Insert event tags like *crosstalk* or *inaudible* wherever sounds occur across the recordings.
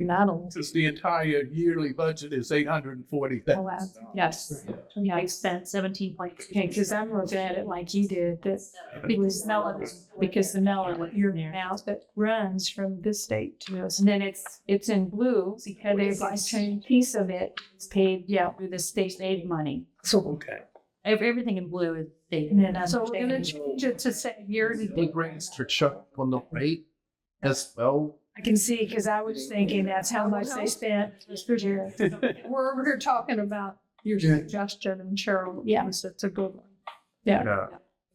not allowed. Since the entire yearly budget is eight hundred and forty Oh, thousand. Yes, yeah, I spent seventeen point, okay, because I'm looking at it like you did, that because Mellon, because the Mellon, your mouth that runs from this state to us. And then it's, it's in blue because they've like changed piece of it, it's paid, yeah, with the state aid money. So, okay. Ev- Everything in blue is state. And then, so we're gonna change it to say yearly. It brings to Chuck on the right as well. I can see, because I was thinking that's how much they spent for year. We're, we're talking about your suggestion and Cheryl, yes, it's a good one. Yeah.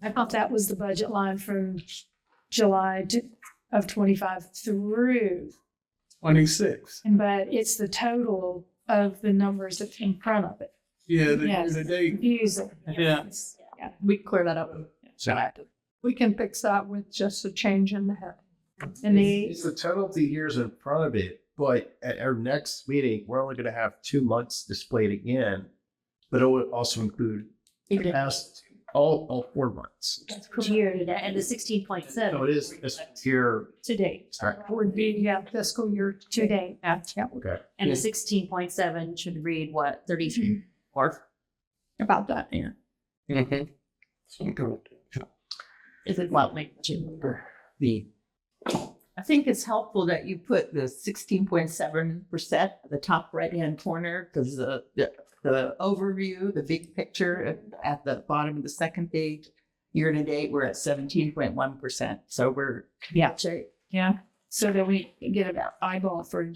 I thought that was the budget line from July to- of twenty-five through, Twenty-six. but it's the total of the numbers that's in front of it. Yeah, the, Yes. the day, Confusing. yeah. Yeah, we clear that up. We can fix that with just a change in the head. And the, It's the total of the years in front of it, but at our next meeting, we're only gonna have two months displayed again. But it would also include the past, all, all four months. Year to that, and the sixteen point So seven. it is, it's here, today, sorry, would be, yeah, fiscal year today. Yeah, yeah, okay. And the sixteen point seven should read what, thirty-three or Mm-hmm. about that, yeah. is it what magnitude? The, I think it's helpful that you put the sixteen point seven percent at the top right-hand corner, because the, the, the overview, the big picture at- at the bottom of the second page, year-to-date, we're at seventeen point one percent, so we're. Yeah. Sorry. Yeah, so that we get an eyeball for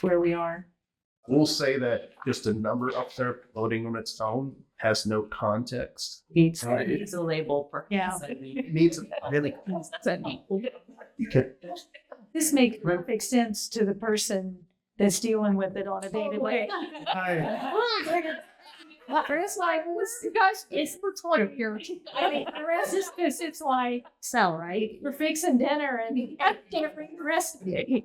where we are. We'll say that just a number up there floating on its own has no context. Needs, Right. needs a label for. Yeah. It needs a really This makes perfect sense to the person that's dealing with it on a daily basis. *laughs* It's like, this- you guys, it's for twenty here. I mean, the rest is, this. it's like, Cell, right? we're fixing dinner and *laughs* you can't bring the rest of it.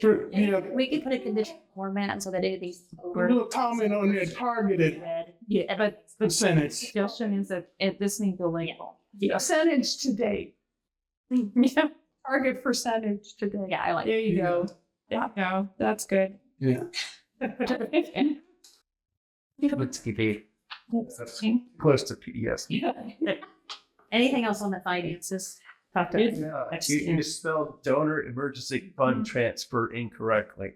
For, you know, We could put a condition format so that it is. a little comment on that targeted Yeah, but percentage. suggestion is that it, this needs a label. Percentage to date. Yeah, target percentage to date. Mm-hmm. Yeah, I like. There you go. There you go. That's good. *laughs* Yeah. Let's keep it close to E PDS. Anything else on the finances? Talk to us. Yeah, you, you spelled donor emergency fund transfer incorrectly.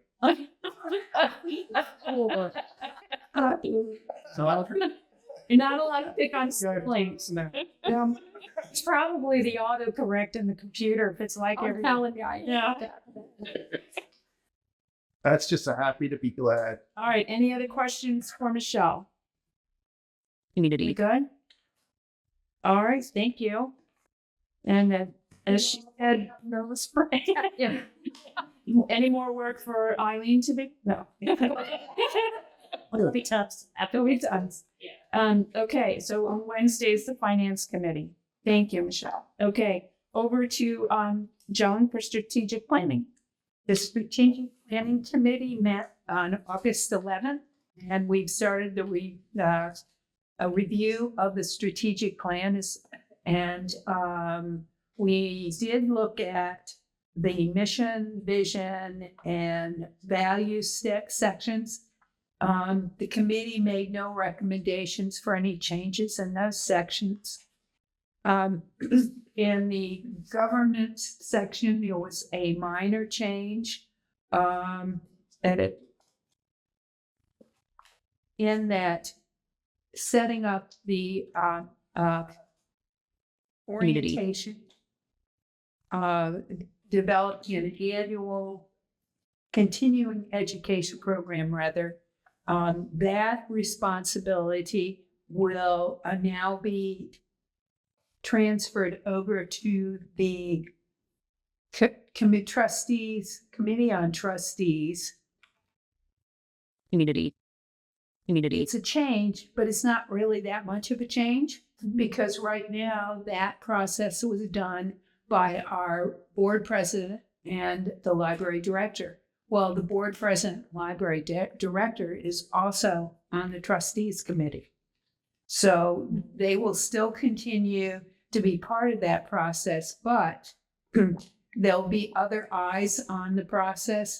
You're not allowed to pick on siblings. It's probably the autocorrect in the computer if it's Oh, like every. Yeah. That's just a happy to be glad. All right, any other questions for Michelle? We Community. good? All right, thank you. And then, as she *laughs* said, nervous *laughs* break. Yeah. Any more work for Eileen to be? No. It'll be tough. After we've done. Um, okay, so on Wednesday's the finance committee. Thank you, Michelle. Okay, over to, um, Joan for strategic planning. The strategic planning committee met on August eleventh, and we've started the re, uh, a review of the strategic plan is, and, um, we did look at the mission, vision, and value sec- sections. Um, the committee made no recommendations for any changes in those sections. Um, *clears throat* in the governance section, there was a minor change. Um, and it in that setting up the, uh, uh, Community. orientation, uh, developing an annual continuing education program rather, um, that responsibility will uh, now be transferred over to the co- commi- trustees, committee on trustees. Community. Community. It's a change, but it's not really that much of a change because right now that process was done by our board president and the library director. Well, the board president, library di- director is also on the trustees committee. So they will still continue to be part of *clears throat* that process, but there'll be other eyes on the process